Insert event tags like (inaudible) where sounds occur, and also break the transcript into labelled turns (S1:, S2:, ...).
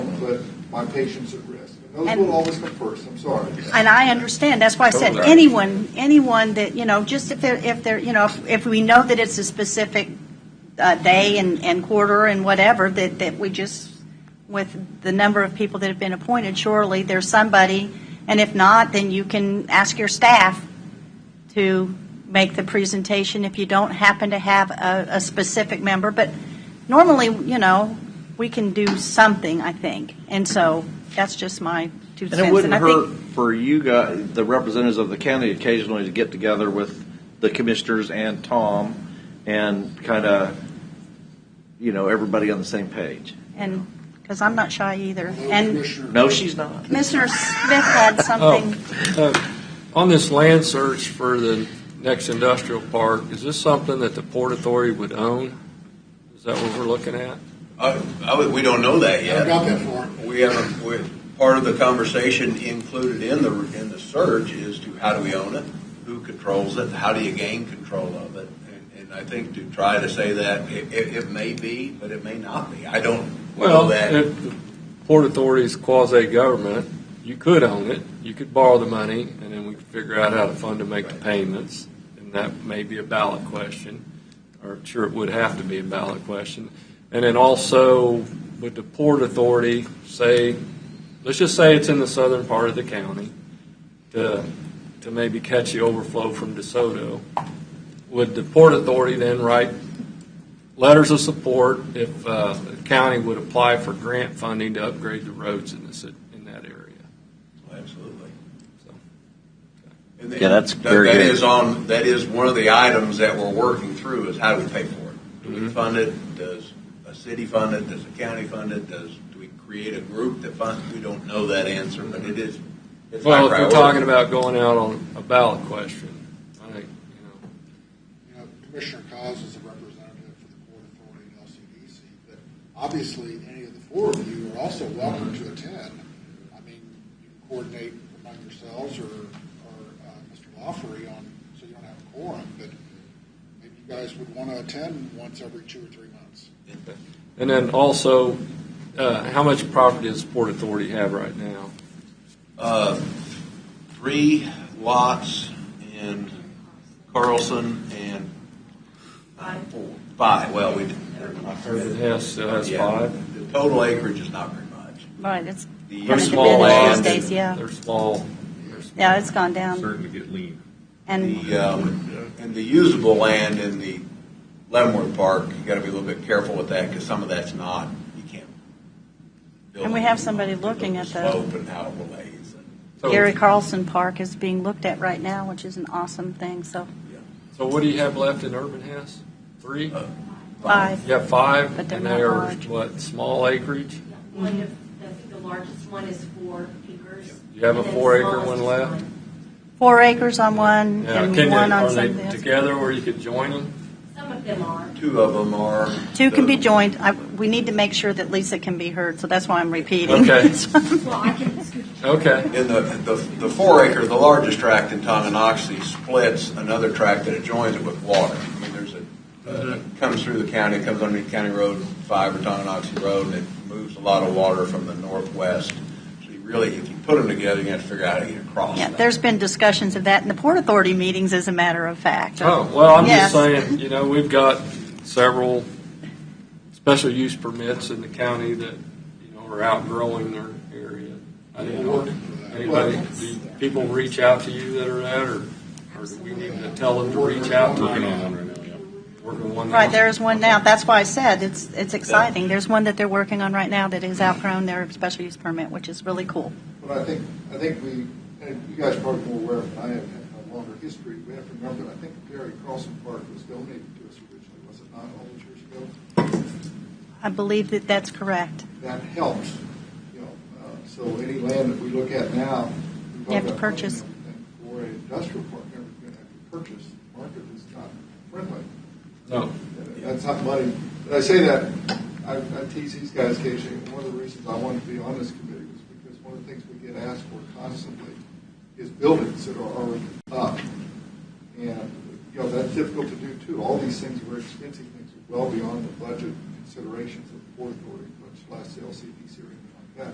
S1: put my patients at risk. And those
S2: And-
S1: will always come first, I'm sorry.
S2: And I understand, that's why I said
S3: Totally.
S2: anyone, anyone that, you know, just if they're, if they're, you know, if- if we know that it's a specific uh, day and, and quarter and whatever, that, that we just, with the number of people that have been appointed, surely there's somebody, and if not, then you can ask your staff to make the presentation if you don't happen to have a, a specific member, but normally, you know, we can do something, I think, and so that's just my two
S3: And it
S2: cents.
S3: wouldn't
S2: I think-
S3: hurt for you guys, the representatives of the county occasionally to get together with the commissioners and Tom and kind of, you know, everybody on the same page.
S2: And, because I'm not shy either.
S1: Although
S2: And
S1: Commissioner-
S3: No, she's not.
S2: Commissioner Smith had something,
S4: On this land search for the next industrial park, is this something that the Port Authority would own? Is that what we're looking at?
S5: I, I would- we don't know that
S1: I
S5: yet.
S1: got that for him.
S5: We haven't, we, part of the conversation included in the, in the search is to how do we own it? Who controls it? How do you gain control of it? And, and I think to try to say that, it, it, it may be, but it may not be. I don't know
S4: Well,
S5: that.
S4: if the Port Authority is quasi-government, you could own it, you could borrow the money, and then we could figure out how to fund to make the payments, and that may be a ballot question, or sure, it would have to be a ballot question. And then also, would the Port Authority say, let's just say it's in the southern part of the county, to, to maybe catch the overflow from DeSoto, would the Port Authority then write letters of support if uh, the county would apply for grant funding to upgrade the roads in this, in that area.
S5: Absolutely.
S4: So-
S5: And
S3: Yeah, that's
S5: that-
S3: very
S5: That
S3: good.
S5: is on, that is one of the items that we're working through is how do we pay for it?
S3: Mm-hmm.
S5: Do we fund it? Does a city fund it? Does a county fund it? Does, do we create a group that funds? it? We don't know that answer, but it is, it's high
S4: Well, if we're
S5: priority.
S4: talking about going out on a ballot question, I think, you know,
S1: You know, Commissioner Cos is a representative for the Port Authority and LCDC, but obviously, any of the four of you are also welcome to attend. I mean, you can coordinate among yourselves or, or uh, Mr. Lawfery on, so you don't have a quorum, but maybe you guys would want to attend once every two or three months.
S4: And then also, uh, how much property does Port Authority have right now?
S5: Uh, Three lots in Carlson and. Four. Five, well, we.
S4: It has, it has five?
S5: The total acreage is not very
S4: Oh.
S5: much.
S2: right, it's
S5: The-
S4: They're
S2: Coming to
S4: small
S2: bid on
S4: lands.
S2: these days, yeah.
S4: They're small. They're small.
S2: yeah, it's gone down.
S6: Starting to get lean.
S2: And
S5: The, um, and the usable land in the Leavenworth Park, you gotta be a little bit careful with that, because some of that's not, you can't. build
S2: And we
S5: on
S2: have
S5: the-
S2: somebody looking at the-
S5: Slope and how it relays. and-
S4: So-
S2: Gary Carlson Park is being looked at right now, which is an awesome thing, so
S4: So what do you have left in Urban House? Three?
S5: Uh,
S2: five.
S4: You have five,
S2: But
S4: and
S2: they're
S4: they
S2: not
S4: are,
S2: large.
S4: what, small acreage?
S7: Yeah, One of, I think the largest one is four acres.
S4: You have a
S7: and then the
S4: four-acre
S7: smallest
S4: one
S7: is
S4: left?
S7: one.
S2: Four acres on one
S4: Yeah,
S2: and
S4: can they-
S2: one on
S4: are they
S2: something else.
S4: Together where you could join them?
S7: Some of them are.
S5: Two of them are.
S2: Two can be
S5: the-
S2: joined. I- We need to make sure that Lisa can be heard, so that's why I'm repeating.
S4: Okay.
S7: Well, I can scoot
S4: Okay.
S5: In the, the, the four acre, the largest tract in Tonganoxie splits another tract that adjoins it with water. I mean, there's a, uh, comes through the county, comes underneath County Road Five or Tonganoxie Road, and it moves a lot of water from the northwest. So you really, if you put them together, you have to figure out how to get
S2: (laughs)
S5: across.
S2: Yeah,
S5: that.
S2: there's been discussions of that in the Port Authority meetings, as a matter of fact.
S4: Oh, well, I'm
S2: Yes.
S4: just saying, you know, we've got several special use permits in the county that, you know, are outgrowing their area. I
S1: We're
S4: didn't know,
S1: working for that.
S4: anybody, do people reach out to you that are that, or, or do we need to tell them to reach out to
S6: Working on
S4: you?
S6: one right now, yeah.
S4: Working one
S2: Right,
S4: now.
S2: there is one now. That's why I said it's, it's exciting. There's one that they're working on right now that is outgrown their special use permit, which is really cool.
S1: But I think, I think we, and you guys are probably more aware than I am, have a longer history. We have to remember that I think Gary Carlson Park was donated to us originally, was it not, all those years ago?
S2: I believe that that's correct.
S1: That helps, you know, uh, so any land that we look at now. we
S2: You have to
S1: talk about
S2: purchase.
S1: putting everything For an industrial park, you're going to have to purchase, The market is not friendly.
S4: No.
S1: That's not money. But I say that, I, I tease these guys occasionally. One of the reasons I wanted to be on this committee was because one of the things we get asked for constantly is buildings that are already up. And, you know, that's difficult to do too. All these things were expensive things, well beyond the budget considerations of the Port Authority, much less the LCDC or anything